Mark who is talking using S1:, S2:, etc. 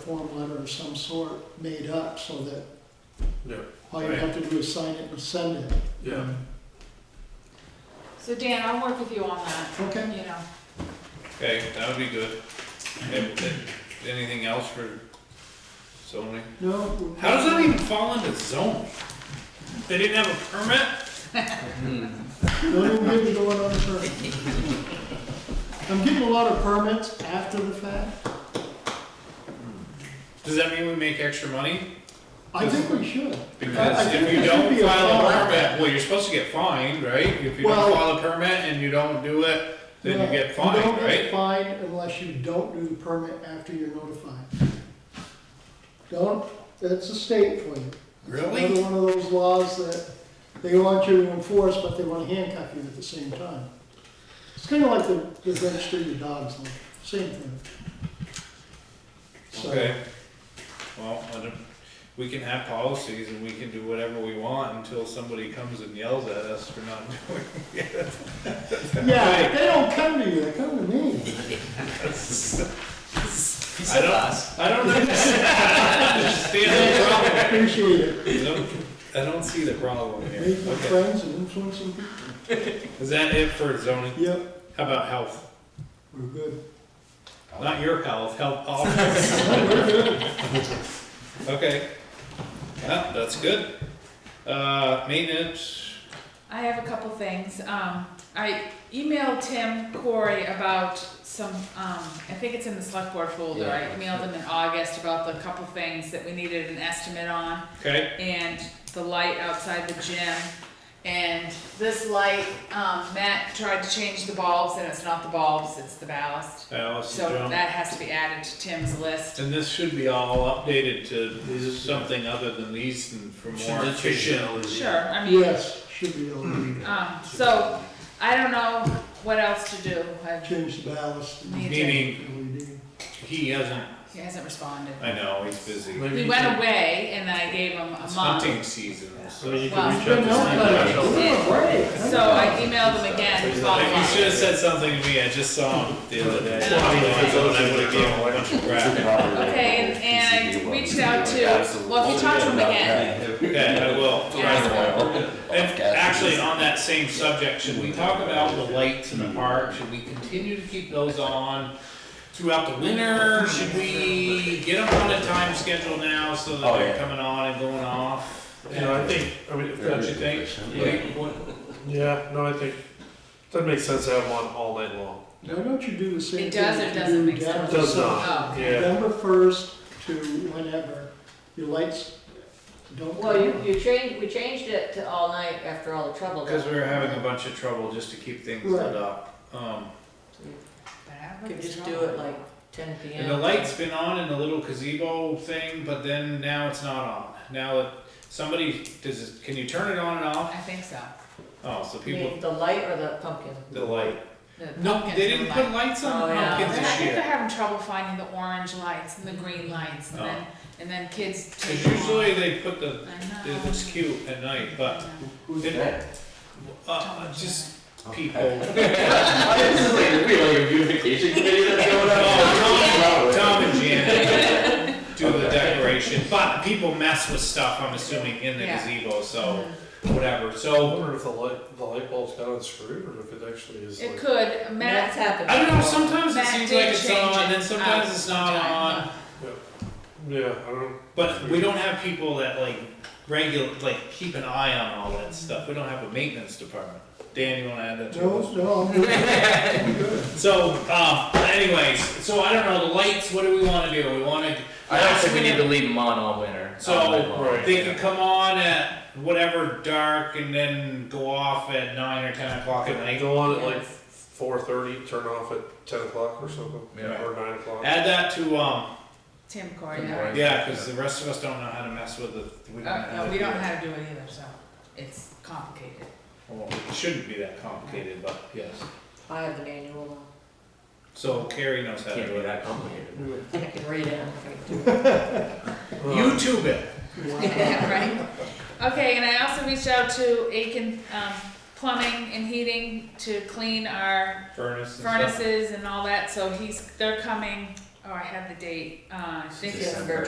S1: form letter of some sort made up so that
S2: Yeah,
S1: all you have to do is sign it and send it.
S2: yeah.
S3: So Dan, I'll work with you on that,
S1: Okay,
S3: you know.
S4: Okay, that would be good. If- if- Anything else for zoning?
S1: no.
S4: How does that even fall into zoning? They didn't have a permit?
S1: What are we doing on the permit? I'm getting a lot of permits after the fact.
S4: Does that mean we make extra money?
S1: I think we should.
S4: Because
S1: I
S4: if
S1: think
S4: you
S1: there should
S4: don't
S1: be a
S4: file a
S1: fine.
S4: permit, well, you're supposed to get fined, right? If you
S1: Well-
S4: don't file a permit and you don't do it, then you get
S1: No,
S4: fined,
S1: You don't get
S4: right?
S1: fined unless you don't do the permit after you're notified. Don't, that's a state for you. Another
S4: Really?
S1: one of those laws that they want you to enforce, but they want to handcuff you at the same time. It's kind of like the, the register your dogs, like, same thing. So,
S4: Okay. Well, I don't, we can have policies and we can do whatever we want until somebody comes and yells at us for not doing
S1: Yeah, they don't come to you, they come to me.
S4: I don't, I don't understand
S1: Appreciate it.
S4: the problem. I don't see the problem here.
S1: Making
S4: Okay.
S1: friends and influencing people.
S4: Is that it for zoning?
S1: Yep,
S4: How about health?
S1: we're good.
S4: Not your health, health office. Okay. Yeah, that's good. Uh, maintenance,
S3: I have a couple things. Um, I emailed Tim Corey about some, um, I think it's in the select board folder. I emailed him in August about the couple things that we needed an estimate on.
S4: okay,
S3: and the light outside the gym. And this light, um, Matt tried to change the bulbs, and it's not the bulbs, it's the ballast.
S4: Alice
S3: So
S4: and John.
S3: that has to be added to Tim's list.
S4: And this should be all updated to something other than these and for more efficient.
S3: Sure, I mean,
S1: Yes, should be able to
S3: um, so I don't know what else to do. I-
S1: change the ballast. and
S3: Me
S4: Meaning,
S1: LED.
S4: he hasn't,
S3: He hasn't responded.
S4: I know, he's busy.
S2: Maybe
S3: He
S2: you
S3: went
S2: can-
S3: away, and I gave him a
S4: It's
S3: month.
S4: hunting season,
S2: I mean,
S4: so.
S2: you
S3: Well,
S2: can reach
S1: Good
S2: out
S1: note,
S2: to
S1: buddy.
S2: Steve.
S1: You're great.
S3: So I emailed him again to follow
S4: Like, you should have
S3: up.
S4: said something to me, I just saw him the other day.
S3: Well, I mean,
S4: I would've gave him a bunch of crap.
S3: Okay, and, and I reached out to, well, if you talk to him again,
S4: Okay, I will.
S3: Yeah.
S4: If, actually, on that same subject, should we talk about the lights in the park? Should we continue to keep those on throughout the winter? Should we get them on a time schedule now so that
S5: Oh,
S4: they're
S5: yeah.
S4: coming on and going off?
S2: You know, I think, I mean, if
S4: Don't you
S2: that's,
S4: think?
S2: Yeah. yeah, no, I think, doesn't make sense to have them on all night long.
S1: Why don't you do the same
S3: It
S1: thing
S3: does or
S1: that you
S3: doesn't
S1: do
S3: make
S1: down
S3: sense?
S1: at the
S2: Does
S1: south?
S3: oh.
S2: Yeah,
S1: November first to whenever, your lights don't.
S6: Well,
S1: come on.
S6: you, you changed, we changed it to all night after all the trouble.
S4: Because we were having a bunch of trouble just to keep things lit up. Um,
S6: Could just do it like ten P
S4: And the
S6: M.
S4: light's been on in the little gazebo thing, but then now it's not on. Now that somebody, does it, can you turn it on and off?
S3: I think so.
S4: Oh, so
S6: You
S4: people,
S6: mean the light or the pumpkin?
S4: the light.
S3: The
S4: No,
S3: pumpkins
S4: they
S3: are
S4: didn't
S3: like-
S4: put lights on the
S6: Oh, yeah.
S3: And
S4: pumpkins
S3: I
S4: this
S3: think they're
S4: year.
S3: having trouble finding the orange lights and the green lights, and
S4: Oh.
S3: then, and then kids take
S4: Cause
S3: them
S4: usually they put
S3: off.
S4: the, it
S3: I know.
S4: looks cute at night, but,
S5: Who's that?
S4: uh, just people.
S5: This is like, wait, like a beautification committee that's going
S4: Oh,
S5: on?
S4: Tom and Janet do the decoration, but people mess with stuff, I'm assuming, in the
S3: Yeah. Mm-hmm.
S4: gazebo, so, whatever, so.
S2: I wonder if the light, the light bulb's got unscrewed, or if it actually is
S3: It
S2: like.
S3: could,
S6: That's
S3: Matt,
S6: happened.
S4: I don't know, sometimes it
S3: Matt
S4: seems
S3: did
S4: like it's
S3: change
S4: on,
S3: it Oh,
S4: and sometimes
S3: out
S4: it's not
S3: sometime.
S4: on,
S2: Yeah, I don't.
S4: but we don't have people that like regular, like keep an eye on all that stuff, we don't have a maintenance department. Dan, you wanna add that to us?
S1: No, no, I'm good.
S4: So, um, anyways, so I don't know, the lights, what do we wanna do, we wanna.
S5: I don't think we need to leave them on all winter. all night long.
S4: So, they can come on at whatever dark and then go off at nine or ten o'clock at night.
S2: Go on at like four thirty, turn off at ten o'clock or something,
S5: Yeah.
S2: or nine o'clock.
S4: Add that to, um,
S3: Tim Corey,
S5: Tim
S3: yeah.
S5: Corey.
S4: yeah, cause the rest of us don't know how to mess with the, we don't
S3: Uh,
S4: know how
S3: no,
S4: to
S3: we
S4: do
S3: don't know
S4: it.
S3: how to do it either, so it's complicated.
S4: Well, it shouldn't be that complicated, but yes.
S6: I have the manual.
S4: So Carrie knows how to
S5: Can't
S4: do
S5: be
S4: it.
S5: that complicated.
S6: I can read it.
S2: Uh,
S4: YouTube it.
S3: Right? Okay, and I also reached out to Aiken, um, Plumbing and Heating to clean our
S4: Furnace and stuff.
S3: furnaces and all that, so he's, they're coming, oh, I had the date, uh, I think it's
S6: December